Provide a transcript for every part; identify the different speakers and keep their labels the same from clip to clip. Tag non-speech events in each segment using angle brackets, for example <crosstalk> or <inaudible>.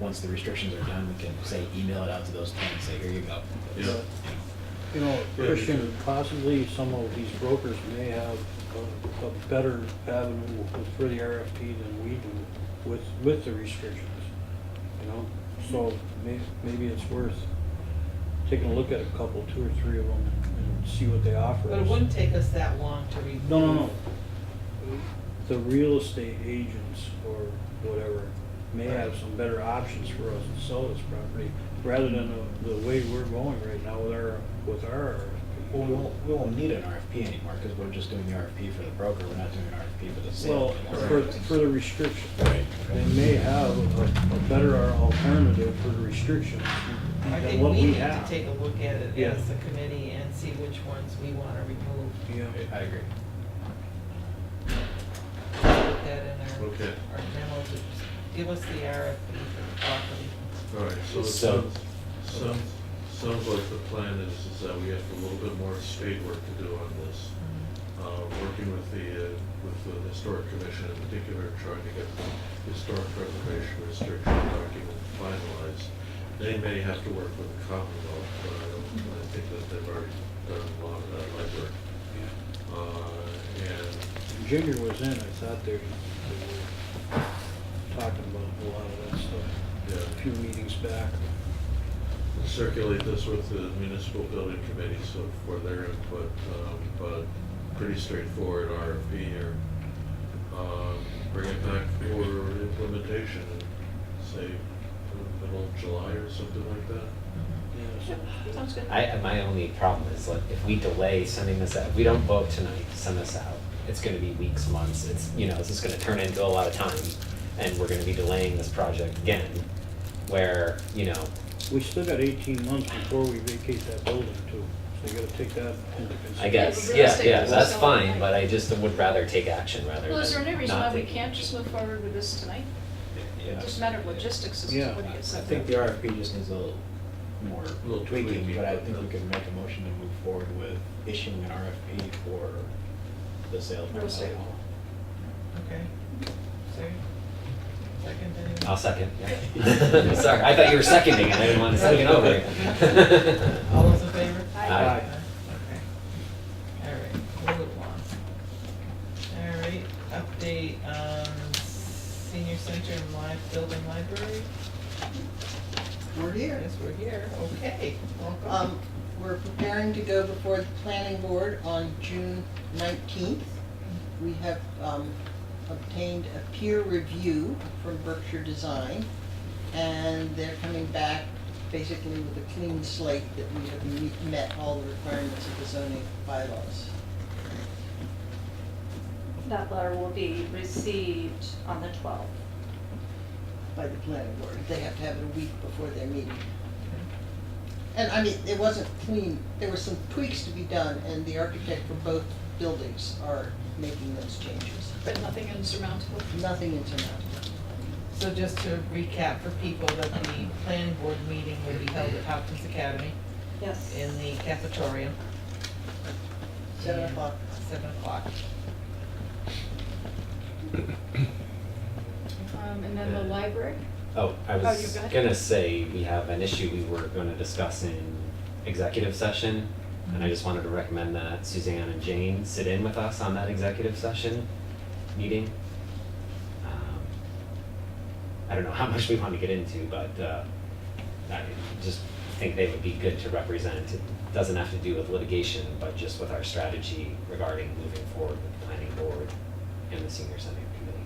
Speaker 1: once the restrictions are done, we can say, email it out to those ten, and say, here you go.
Speaker 2: Yeah.
Speaker 1: You know,
Speaker 3: You know,
Speaker 2: Yeah,
Speaker 3: Christian, possibly some of these brokers may have a, a better avenue with- for the RFP than we do with, with the restrictions, you know? So may, maybe it's worth taking a look at a couple, two or three of them and see what they offer
Speaker 4: But it
Speaker 3: us.
Speaker 4: wouldn't take us that long to read.
Speaker 3: No, no, no. The real estate agents or whatever may have some better options for us to sell this property rather than the- the way we're going right now with our, with our
Speaker 1: Well, we
Speaker 3: RFP.
Speaker 1: won't, we won't need an RFP anymore, because we're just doing the RFP for the broker, we're not doing an RFP for the
Speaker 3: Well,
Speaker 1: sale.
Speaker 3: for, for the restriction,
Speaker 1: Right.
Speaker 3: they may have a, a better alternative for the restrictions
Speaker 4: I
Speaker 3: than
Speaker 4: think
Speaker 3: what
Speaker 4: we
Speaker 3: we
Speaker 4: need to
Speaker 3: have.
Speaker 4: take a look at it
Speaker 3: Yeah.
Speaker 4: as a committee and see which ones we want to remove.
Speaker 3: Yeah,
Speaker 1: I agree.
Speaker 4: Put that in our,
Speaker 2: Okay.
Speaker 4: our memo, to just give us the RFP for the property.
Speaker 2: All right, so
Speaker 1: So-
Speaker 2: it sounds, sounds, sounds like the plan is, is that we have a little bit more spade work to do on this. Uh, working with the, uh, with the historic commission in particular, trying to get the historic preservation restriction document finalized. They may have to work with the Commonwealth, but I don't, I think that they've already done a lot of that legwork.
Speaker 3: yeah.
Speaker 2: Uh, and
Speaker 3: Junior was in, I thought they, they were talking about a lot of that stuff
Speaker 2: Yeah.
Speaker 3: a few meetings back.
Speaker 2: circulate this with the municipal building committee, so for their input, um, but pretty straightforward RFP here. Um, Bring it back for implementation, and say, middle of July or something like that.
Speaker 3: Yes.
Speaker 5: Sounds good.
Speaker 6: I, my only problem is like if we delay sending this out, if we don't vote tonight, to send this out, it's gonna be weeks, months, it's, you know, this is gonna turn into a lot of time. And we're gonna be delaying this project again, where, you know,
Speaker 3: We still got eighteen months before we vacate that building too, so you gotta take that into consideration.
Speaker 6: I guess,
Speaker 5: real
Speaker 6: yeah,
Speaker 5: estate
Speaker 6: yeah,
Speaker 5: is
Speaker 6: that's
Speaker 5: so-
Speaker 6: fine, but I just would rather take action rather than
Speaker 5: Well,
Speaker 6: not
Speaker 5: is there any reason why we
Speaker 6: taking
Speaker 5: can't
Speaker 6: action.
Speaker 5: just move forward with this tonight?
Speaker 1: Yeah.
Speaker 5: It's just a matter of logistics, is
Speaker 3: Yeah.
Speaker 5: what
Speaker 1: I
Speaker 5: it is.
Speaker 1: think the RFP just needs a little more
Speaker 2: Little
Speaker 1: tweaking,
Speaker 2: tweaking,
Speaker 1: but I think we
Speaker 2: but-
Speaker 1: could make a motion to move forward with issuing an RFP for the sale of
Speaker 5: Real estate.
Speaker 1: Martello Hall.
Speaker 4: Okay. Sorry. Second, anyone?
Speaker 6: I'll second, <laughs> yeah. Sorry, I thought you were seconding it, I didn't want to second over <laughs> you.
Speaker 4: <laughs> All those in favor?
Speaker 5: Aye.
Speaker 6: Aye.
Speaker 4: Okay. All right, move along. All right, update, um, senior center and live building library.
Speaker 7: We're here.
Speaker 4: Yes, we're here, okay, welcome.
Speaker 7: Um, We're preparing to go before the planning board on June nineteenth. We have um, obtained a peer review from Berkshire Design, and they're coming back basically with a clean slate that we have me- met all the requirements of the zoning bylaws.
Speaker 8: That letter will be received on the 12th.
Speaker 7: by the planning board. They have to have it a week before their meeting. And I mean, it wasn't clean, there were some tweaks to be done, and the architect for both buildings are making those changes.
Speaker 5: But nothing insurmountable.
Speaker 7: Nothing insurmountable.
Speaker 4: So just to recap for people, that the planning board meeting will be held at Hopkins Academy
Speaker 8: Yes.
Speaker 4: in the cafeteria.
Speaker 7: Seven o'clock.
Speaker 4: Seven o'clock.
Speaker 5: Um, and then the library?
Speaker 6: Oh, I
Speaker 5: Oh, you
Speaker 6: was
Speaker 5: got it.
Speaker 6: gonna say, we have an issue we were gonna discuss in executive session, and I just wanted to recommend that Suzanne and Jane sit in with us on that executive session meeting. Um, I don't know how much we want to get into, but, uh, I just think they would be good to represent. It doesn't have to do with litigation, but just with our strategy regarding moving forward with the planning board and the senior center committee.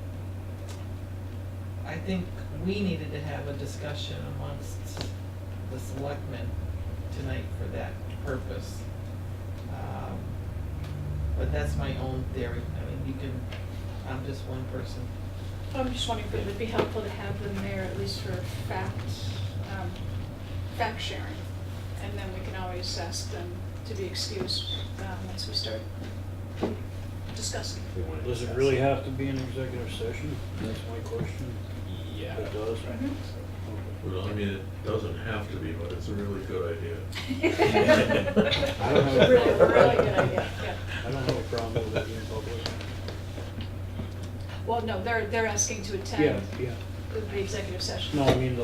Speaker 4: I think we needed to have a discussion amongst the selectmen tonight for that purpose. Um, But that's my own theory, I mean, you can, I'm just one person.
Speaker 5: I'm just wondering if it would be helpful to have them there at least for fact, um, fact sharing. And then we can always ask them to be excused, um, once we start discussing.
Speaker 1: <laughs>
Speaker 6: If
Speaker 5: <laughs>
Speaker 6: we wanna
Speaker 3: Does it
Speaker 6: discuss.
Speaker 3: really have to be an executive session? That's my question.
Speaker 6: Yeah.
Speaker 3: It does?
Speaker 5: Mhm.
Speaker 3: Okay.
Speaker 2: Well, I mean, it doesn't have to be, but it's a really good idea.
Speaker 5: <laughs>
Speaker 3: I don't have a
Speaker 5: Really,
Speaker 3: problem.
Speaker 5: really good idea, yeah.
Speaker 3: I don't have a problem with it being public.
Speaker 5: Well, no, they're, they're asking to
Speaker 3: Yeah,
Speaker 5: attend
Speaker 3: yeah.
Speaker 5: the executive session.
Speaker 3: No, I mean, the